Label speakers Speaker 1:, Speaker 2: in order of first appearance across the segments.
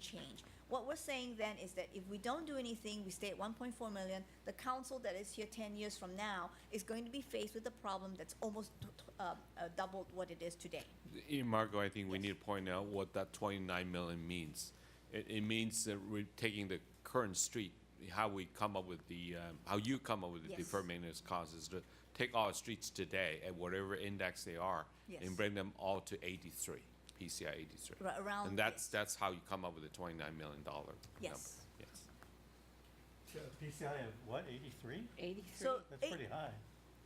Speaker 1: change. What we're saying then is that if we don't do anything, we stay at 1.4 million, the council that is here 10 years from now is going to be faced with a problem that's almost t- t- uh, uh, doubled what it is today.
Speaker 2: In Marco, I think we need to point out what that 29 million means. It, it means that we're taking the current street, how we come up with the, um, how you come up with the
Speaker 1: Yes.
Speaker 2: deferred maintenance costs is to take all streets today at whatever index they are
Speaker 1: Yes.
Speaker 2: and bring them all to 83, PCI 83.
Speaker 1: Ra- around-
Speaker 2: And that's, that's how you come up with the 29 million dollar number.
Speaker 1: Yes.
Speaker 2: Yes.
Speaker 3: PCI of what, 83?
Speaker 4: 83.
Speaker 1: So-
Speaker 3: That's pretty
Speaker 1: Eight-
Speaker 3: high.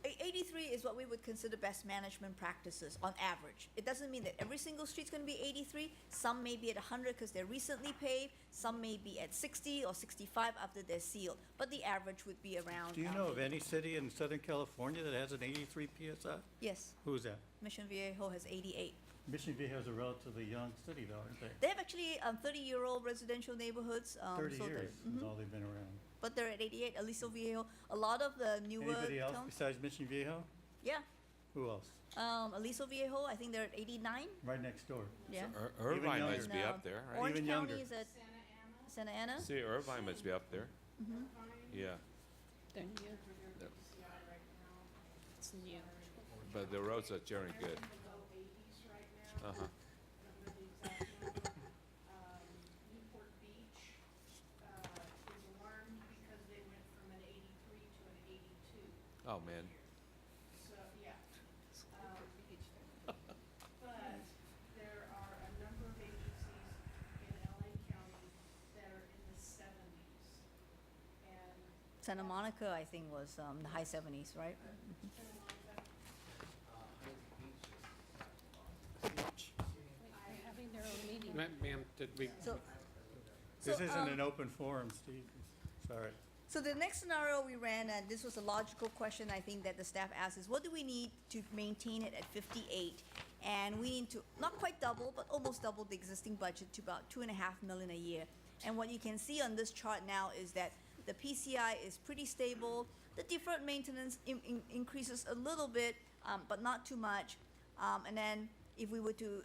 Speaker 1: A- 83 is what we would consider best management practices on average. It doesn't mean that every single street's going to be 83. Some may be at 100 because they're recently paved. Some may be at 60 or 65 after they're sealed. But the average would be around.
Speaker 3: Do you
Speaker 1: um,
Speaker 3: know of any city in Southern California that has an 83 PSI?
Speaker 1: Yes,
Speaker 3: Who's that?
Speaker 1: Mission Viejo has 88.
Speaker 3: Mission Viejo is a relatively young city though, aren't they?
Speaker 1: They have actually um, 30-year-old residential neighborhoods. um,
Speaker 3: 30
Speaker 1: so they're-
Speaker 3: years is all they've been around.
Speaker 1: But they're at 88. Aliso Viejo, a lot of the newer
Speaker 3: Anybody else
Speaker 1: towns.
Speaker 3: besides Mission Viejo?
Speaker 1: Yeah.
Speaker 3: Who else?
Speaker 1: Um, Aliso Viejo, I think they're at 89.
Speaker 3: Right next door.
Speaker 1: Yeah.
Speaker 2: Ir- Irvine
Speaker 3: younger.
Speaker 2: must be
Speaker 1: No.
Speaker 2: up there, right?
Speaker 1: Orange
Speaker 3: Even
Speaker 1: County
Speaker 3: younger.
Speaker 1: is at
Speaker 5: Santa Ana,
Speaker 1: Santa Ana.
Speaker 2: See, Irvine must be up there.
Speaker 1: Mm-hmm.
Speaker 2: Yeah,
Speaker 4: Then you-
Speaker 5: they're PCI right now.
Speaker 4: it's you.
Speaker 2: but the roads are generally good. Uh-huh.
Speaker 5: They're in the low eighties right now. I don't know the exact number. Um, Newport Beach, uh, is alarmed because they went from an eighty-three to an eighty-two.
Speaker 2: Oh, man.
Speaker 5: So, yeah. Um, But there are a number of agencies in LA County that are in the seventies. And
Speaker 1: Santa Monica, I think, was um, the high 70s, right?
Speaker 5: Santa Monica,
Speaker 4: They're having their own meeting.
Speaker 6: Ma- Ma'am, did we,
Speaker 1: So, so,
Speaker 3: This isn't
Speaker 1: um,
Speaker 3: an open forum, Steve. Sorry.
Speaker 1: So the next scenario we ran, and this was a logical question I think that the staff asked, is what do we need to maintain it at 58? And we need to, not quite double, but almost double the existing budget to about two and a half million a year. And what you can see on this chart now is that the PCI is pretty stable. The deferred maintenance in, in- increases a little bit, um, but not too much. Um, and then if we were to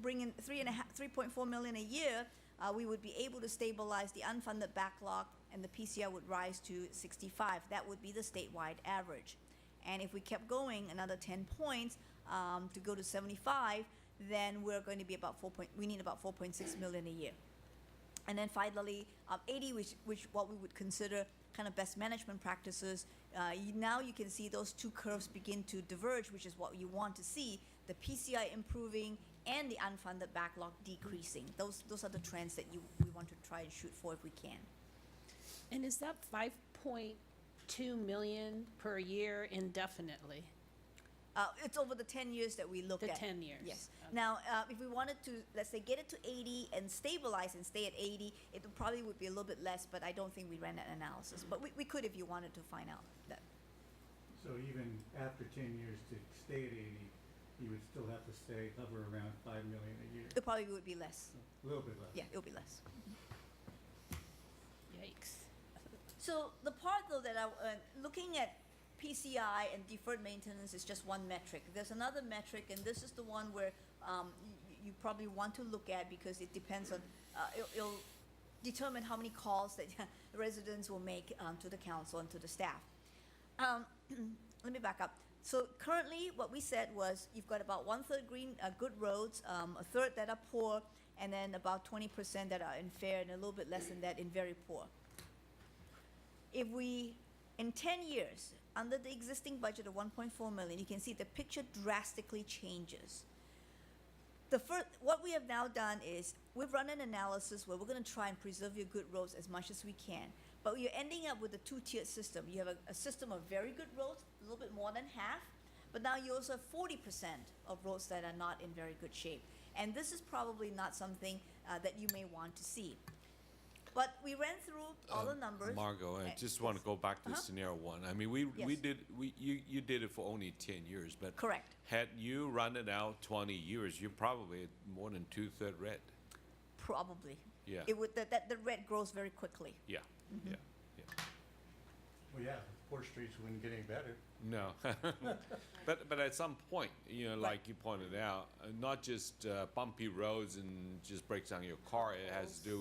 Speaker 1: bring in three and a half, three point four million a year, uh, we would be able to stabilize the unfunded backlog, and the PCI would rise to sixty-five. That would be the statewide average. And if we kept going another ten points um, to go to seventy-five, then we're going to be about four point. We need about four point six million a year. And then finally, um, 80, which, which what we would consider kind of best management practices. Uh, you, now you can see those two curves begin to diverge, which is what you want to see: the PCI improving and the unfunded backlog decreasing. Those those are the trends that you we want to try and shoot for if we can.
Speaker 4: And is that 5.2 million per year indefinitely?
Speaker 1: Uh, it's over the 10 years that we looked
Speaker 4: The
Speaker 1: at.
Speaker 4: 10 years. Oh,
Speaker 1: Yes.
Speaker 4: Okay.
Speaker 1: Now, uh, if we wanted to, let's say, get it to 80 and stabilize and stay at 80, it would probably would be a little bit less, but I don't think we ran that analysis. But we, we could if you wanted to find out that.
Speaker 3: So even after 10 years to stay at 80, you would still have to stay, hover around 5 million a year,
Speaker 1: It probably would be less.
Speaker 3: a little bit less.
Speaker 1: Yeah, it'll be less.
Speaker 4: Yikes.
Speaker 1: So the part though that I, uh, looking at PCI and deferred maintenance is just one metric. There's another metric, and this is the one where um, you, you probably want to look at because it depends on uh, it'll, it'll determine how many calls that the residents will make um, to the council and to the staff. Um, let me back up. So currently, what we said was you've got about one third green, uh, good roads, um, a third that are poor, and then about 20% that are in fair, and a little bit less than that in very poor if we, in 10 years, under the existing budget of 1.4 million, you can see the picture drastically changes. The first, what we have now done is we've run an analysis where we're going to try and preserve your good roads as much as we can, but you're ending up with a two-tiered system. You have a, a system of very good roads, a little bit more than half, but now you also have 40% of roads that are not in very good shape, and this is probably not something uh, that you may want to see. But we ran through all the
Speaker 2: Um,
Speaker 1: numbers.
Speaker 2: Margot, I
Speaker 1: Uh,
Speaker 2: just want to go back to
Speaker 1: Uh-huh.
Speaker 2: scenario one. I mean, we, we
Speaker 1: Yes.
Speaker 2: did, we, you, you did it for only ten years, but.
Speaker 1: Correct.
Speaker 2: Had you run it out twenty years, you're probably at more than two-third red.
Speaker 1: Probably.
Speaker 2: Yeah.
Speaker 1: It would, that, that, the red grows very quickly.
Speaker 2: Yeah, yeah, yeah.
Speaker 3: Well, yeah, poor streets wouldn't get any better.
Speaker 2: No. But, but at some point, you know,
Speaker 1: Right.
Speaker 2: like you pointed out, uh, not just uh, bumpy roads and just breaks down your car, it has to do